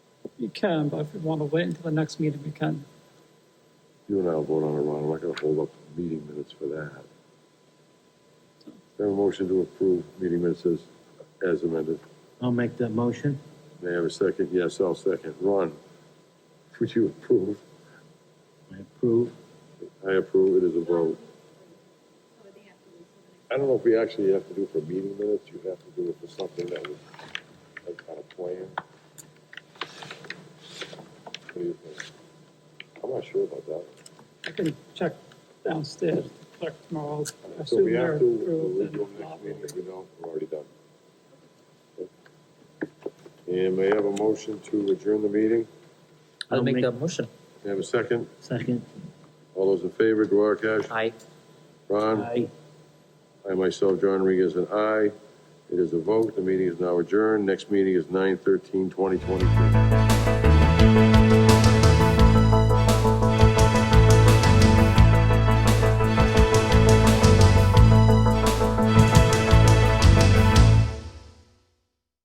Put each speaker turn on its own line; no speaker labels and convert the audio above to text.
you can, but if you want to wait until the next meeting, we can.
You and I will vote on it, Ron, I'm not gonna hold up meeting minutes for that. Is there a motion to approve meeting minutes as, as amended?
I'll make that motion.
May I have a second? Yes, I'll second. Ron, would you approve?
I approve.
I approve, it is a vote.
So they have to wait till the next-
I don't know if we actually have to do it for meeting minutes, you have to do it for something that was, like, on a plan. What do you think? I'm not sure about that.
I can check downstairs, clerk tomorrow. I
So
assume
we
they're
have to,
approved
we'll
and
do it next
not-
meeting, if we don't, we're already done. And may I have a motion to adjourn the meeting?
I'll
I'll
make
make-
that motion.
May I have a second?
Second.
All those in favor, Duarkesh?
Aye.
Ron?
Aye.
I myself, John Rodriguez, an aye. It is a vote, the meeting is now adjourned, next meeting is nine thirteen twenty twenty-two.